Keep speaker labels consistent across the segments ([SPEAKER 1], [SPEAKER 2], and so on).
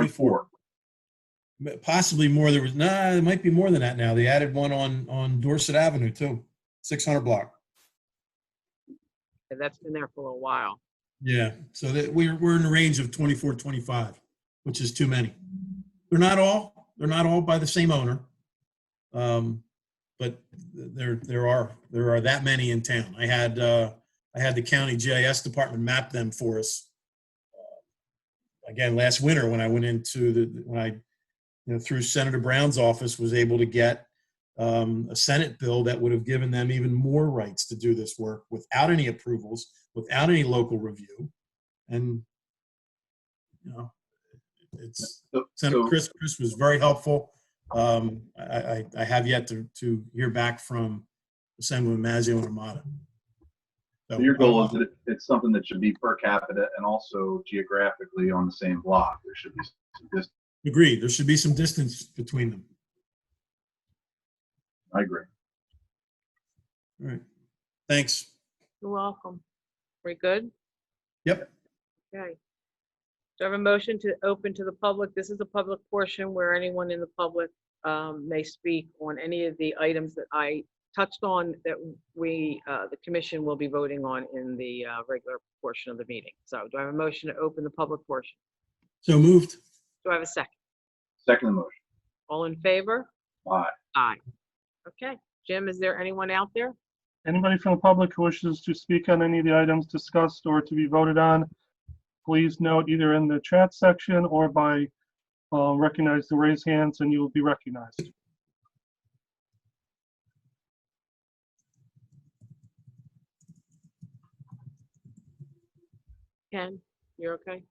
[SPEAKER 1] 24.
[SPEAKER 2] possibly more. There was, nah, it might be more than that now. They added one on, on Dorset Avenue too, 600 block.
[SPEAKER 3] and that's been there for a while.
[SPEAKER 2] Yeah, so that we're, we're in the range of 24, 25, which is too many. They're not all, they're not all by the same owner. Um, But there, there are, there are that many in town. I had, uh, I had the county GIS department map them for us. uh, Again, last winter when I went into the, when I, you know, through Senator Brown's office was able to get um, a Senate bill that would have given them even more rights to do this work without any approvals without any local review. And, you know, it's,
[SPEAKER 1] So-
[SPEAKER 2] Senator
[SPEAKER 1] so-
[SPEAKER 2] Chris, Chris was very helpful. Um, I, I, I have yet to, to hear back from Assemblyman Mazzio and Armada. So, uh, um,
[SPEAKER 1] So Your goal is that it- it's something that should be per capita and also geographically on the same block. There should be some distance.
[SPEAKER 2] Agreed, there should be some distance between them.
[SPEAKER 1] I agree.
[SPEAKER 2] All right, thanks.
[SPEAKER 3] You're welcome. We good?
[SPEAKER 2] Yep.
[SPEAKER 3] Okay. Do I have a motion to open to the public? This is a public portion where anyone in the public um, may speak on any of the items that I touched on that we, uh, the commission will be voting on in the uh, regular portion of the meeting. So do I have a motion to open the public portion?
[SPEAKER 2] So moved.
[SPEAKER 3] Do I have a second?
[SPEAKER 1] Second motion.
[SPEAKER 3] All in favor?
[SPEAKER 1] Aye.
[SPEAKER 3] Okay. Jim, is there anyone out there?
[SPEAKER 4] Anybody from the public who wishes to speak on any of the items discussed or to be voted on, please note either in the chat section or by, uh, recognize the raise hands and you will be recognized.
[SPEAKER 3] Ken, you're okay?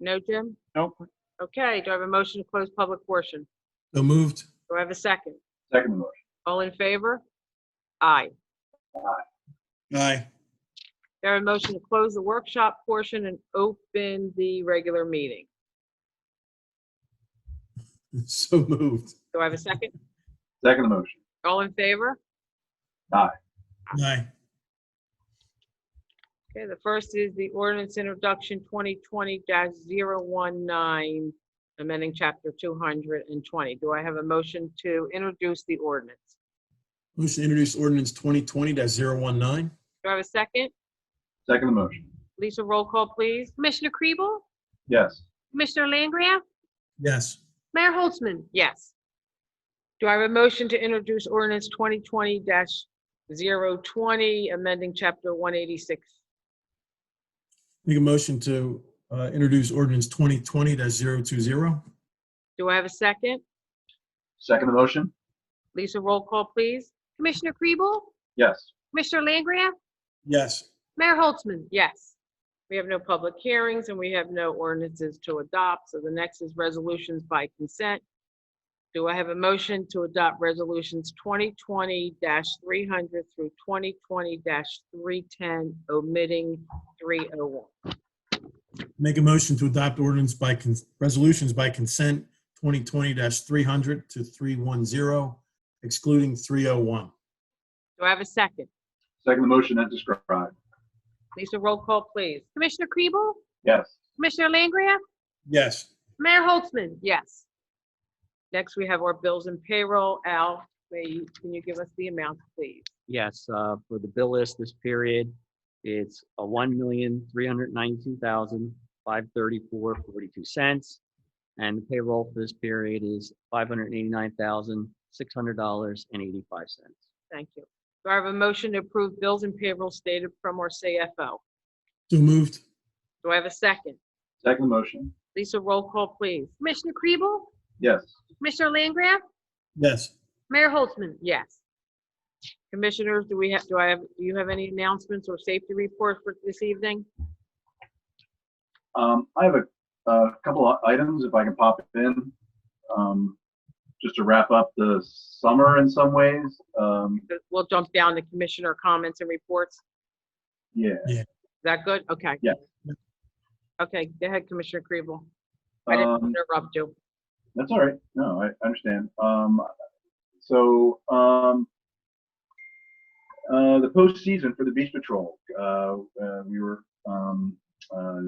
[SPEAKER 3] No, Jim?
[SPEAKER 4] Nope,
[SPEAKER 3] Okay, do I have a motion to close public portion?
[SPEAKER 2] So moved.
[SPEAKER 3] Do I have a second?
[SPEAKER 1] Second motion.
[SPEAKER 3] All in favor? Aye.
[SPEAKER 2] Aye.
[SPEAKER 3] Do I have a motion to close the workshop portion and open the regular meeting?
[SPEAKER 2] So moved.
[SPEAKER 3] Do I have a second?
[SPEAKER 1] Second motion.
[SPEAKER 3] All in favor?
[SPEAKER 2] Aye.
[SPEAKER 3] Okay, the first is the ordinance introduction 2020-019, amending chapter 220. Do I have a motion to introduce the ordinance?
[SPEAKER 2] Motion to introduce ordinance 2020-019.
[SPEAKER 3] Do I have a second?
[SPEAKER 1] Second motion.
[SPEAKER 3] Lisa, roll call, please.
[SPEAKER 5] Commissioner Kriebel?
[SPEAKER 1] Yes.
[SPEAKER 5] Commissioner Langria?
[SPEAKER 2] Yes.
[SPEAKER 5] Mayor Holtzman?
[SPEAKER 3] Yes. Do I have a motion to introduce ordinance 2020-020, amending chapter 186?
[SPEAKER 2] Make a motion to uh, introduce ordinance 2020-020.
[SPEAKER 3] Do I have a second?
[SPEAKER 1] Second motion.
[SPEAKER 3] Lisa, roll call, please.
[SPEAKER 5] Commissioner Kriebel?
[SPEAKER 1] Yes.
[SPEAKER 5] Commissioner Langria?
[SPEAKER 2] Yes.
[SPEAKER 5] Mayor Holtzman?
[SPEAKER 3] Yes. We have no public hearings and we have no ordinances to adopt, so the next is resolutions by consent. Do I have a motion to adopt resolutions 2020-300 through 2020-310, omitting 301?
[SPEAKER 2] Make a motion to adopt ordinance by, cons- resolutions by consent 2020-300 to 310, excluding 301.
[SPEAKER 3] Do I have a second?
[SPEAKER 1] Second motion as described.
[SPEAKER 3] Lisa, roll call, please.
[SPEAKER 5] Commissioner Kriebel?
[SPEAKER 1] Yes.
[SPEAKER 5] Commissioner Langria?
[SPEAKER 2] Yes.
[SPEAKER 5] Mayor Holtzman?
[SPEAKER 3] Yes. Next, we have our bills and payroll. Al, may- can you give us the amount, please?
[SPEAKER 6] Yes, uh, for the bill list this period, it's a one million, three hundred ninety-two thousand, five thirty-four, forty-two cents. And the payroll for this period is five hundred eighty-nine thousand, six hundred dollars and eighty-five cents.
[SPEAKER 3] Thank you. Do I have a motion to approve bills and payroll stated from our CFO?
[SPEAKER 2] So moved.
[SPEAKER 3] Do I have a second?
[SPEAKER 1] Second motion.
[SPEAKER 3] Lisa, roll call, please.
[SPEAKER 5] Commissioner Kriebel?
[SPEAKER 1] Yes.
[SPEAKER 5] Commissioner Langria?
[SPEAKER 2] Yes.
[SPEAKER 5] Mayor Holtzman?
[SPEAKER 3] Yes. Commissioners, do we have, do I have, do you have any announcements or safety reports for this evening?
[SPEAKER 1] Um, I have a, a couple of items if I can pop in. Um, just to wrap up the summer in some ways. Um,
[SPEAKER 3] We'll jump down to commissioner comments and reports. Is
[SPEAKER 1] yeah.
[SPEAKER 3] that good? Okay.
[SPEAKER 1] Yeah.
[SPEAKER 3] Okay, go ahead, Commissioner Kribel. I didn't
[SPEAKER 1] Um,
[SPEAKER 3] want to interrupt you.
[SPEAKER 1] That's all right. No, I I understand. Um, so, um, uh, the postseason for the Beach Patrol, uh, uh, we were, um, uh,